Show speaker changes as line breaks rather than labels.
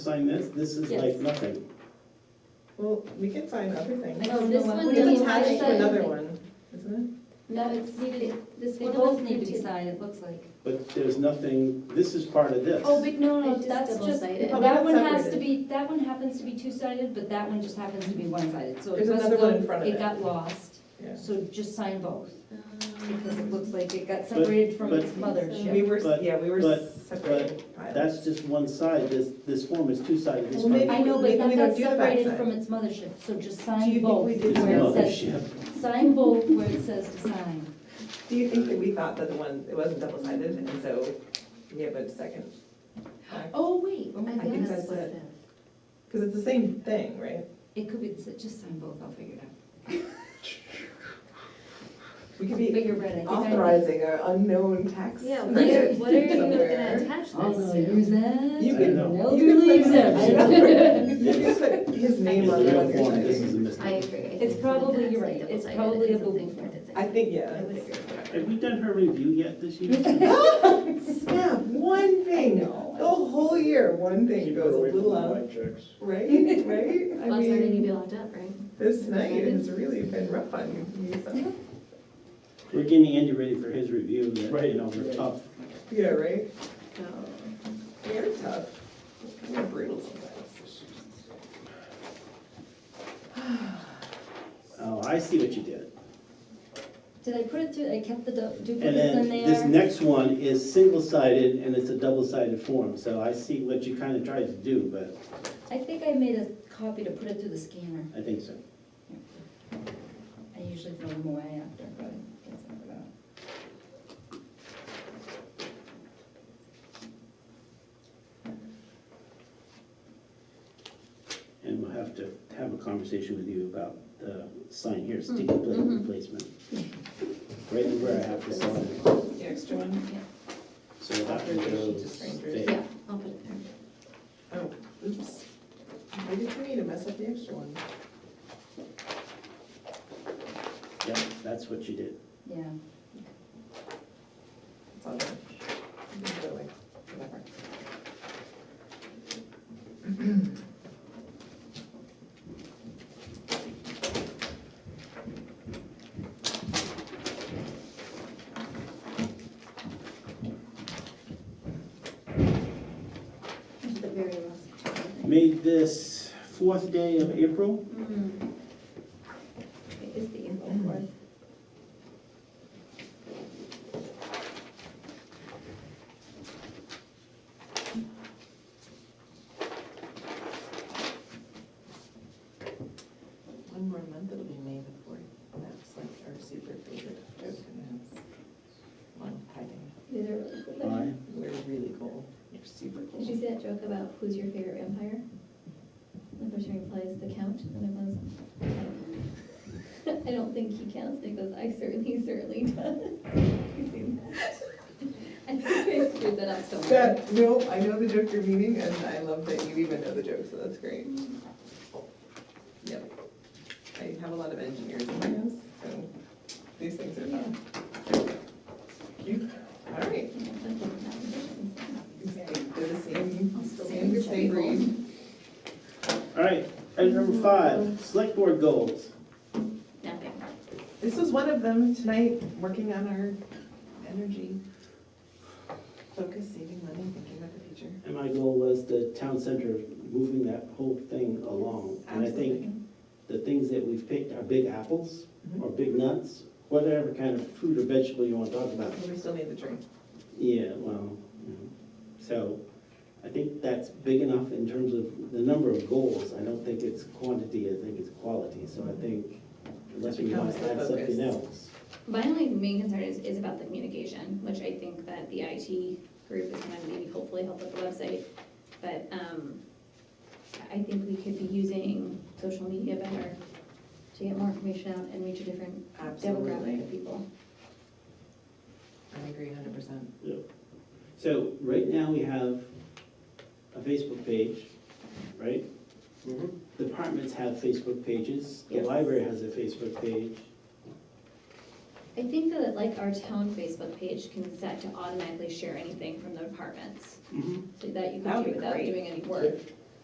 sign this, this is
Yes.
like nothing.
Well, we can sign other things.
No, Oh, this one
We
doesn't
can
have
attach
to
it to
sign
another
anything.
one, isn't
No, it's needed, this
They
one
both
was
need to be
printed.
signed, it looks like.
But there's nothing, this is part of this.
Oh, but no,
I
no,
just
that's just,
double-sided.
Oh,
that one
that's
has to
separated.
be, that one happens to be two-sided, but that one just happens to be one-sided, so it
There's
must
another one
go-
in front of it.
It got lost,
it?
so just sign both, because it
Um,
looks like it got separated from
but-
its
Yeah. We
mothership.
were,
But-
yeah, we were
but-
separated.
That's just one side, this, this form is two-sided, this
Well,
part
maybe-
is
I know, but
Maybe
that
we don't
got
do the
separated
backside.
from its mothership, so just
Do you
sign
think
both
we did
where it says,
mothership.
sign both where it says to sign.
Do you think that we thought that the one, it wasn't double-sided, and so we have a second?
Oh, wait,
I
I
think
guess
that's
that's what
it.
it is.
Because it's the same thing, right?
it could be, just sign both, I'll figure it out.
We could
But
be
you're right, I think I.
authorizing an unknown tax.
Yeah, what are,
credit
what are you
somewhere.
gonna attach
I'll
this
use
to?
that.
You
I
can,
know.
No,
you can
you
put-
leave them.
I know. You can put his
It's
name
the
on the
real
one
form, this is a
side.
I
mistake.
agree. I think
It's probably, you're right,
that's
it's
like
probably a
double-sided, it's
booby
something
form.
printed.
I think, yeah.
I would agree with
Have
that.
we done her review yet this year?
Snap, one thing, the whole year, one thing
Keep
goes a
away from
little
the
out,
white chicks.
right, right? I
Well, it's already
mean,
gonna be locked up, right?
This night has really been rough on you, so.
We're getting Andy ready for his review, that, you know, we're
Right.
tough.
Yeah, right? Um,
So,
They're tough. They're brutal sometimes.
Oh, I see what you did.
Did I put it through, I kept the du-
And
duplicates
then
in
this
there?
next one is single-sided and it's a double-sided form, so I see what you kind of tried to do, but
I think I made a copy to put it through the scanner.
I think so.
I usually throw them away after, but I guess I forgot.
And we'll have to have a conversation with you about the sign here,
Mm-hmm.
sticky plate replacement. Right where I have to sign it.
The extra one?
So that one goes
Strangers.
yeah,
there.
I'll put it there.
Oh, oops. Why did you need to mess up the extra one?
Yep, that's what you did.
Yeah,
It's all done. You can go away. Whatever.
It's the very last. one.
Made this fourth day of April.
Mm. It is the info one.
One more month, it'll be May the fourth. That's like our super favorite. We're gonna have One hiding.
These are really cool.
Aye.
We're really cool. You're super
Did you see that joke about who's your favorite vampire? The person replies, the count, and the one's, "I don't know." I don't think he counts, and he goes, I certainly, certainly does. You seen that? I think I screwed that up somewhere.
That, no, I know the joke you're meaning, and I love that you even know the joke, so that's great. Yep. I have a lot of engineers in my house, so these things are fun. Cute. All right. They're the same, same, same breed.
All right, item number five, select board goals.
Nothing.
This was one of them tonight, working on our energy. Focus, saving money, thinking about the future.
And my goal was the town center, moving that whole thing along. And I think
Absolutely.
the things that we've picked are big apples
Mhm.
or big nuts, whatever kind of fruit or vegetable you want to talk about.
But We still need the tree.
Yeah, well, you know, so I think that's big enough in terms of the number of goals. I don't think it's quantity, I think it's quality. So I think unless we want to
Becomes the
add something
focus.
else.
My only main concern is, is about the communication, which I think that the IT group is gonna maybe hopefully help with the website. But, um, I think we could be using social media better to get more information out and reach a different demographic
Absolutely.
of people.
I agree hundred percent.
So right now we have a Facebook page, right? Departments have Facebook pages, the
Yes.
library has a Facebook page.
I think that like our town Facebook page can set to automatically share anything from the departments, so that you
That would
can do
be
without
great.
doing any work.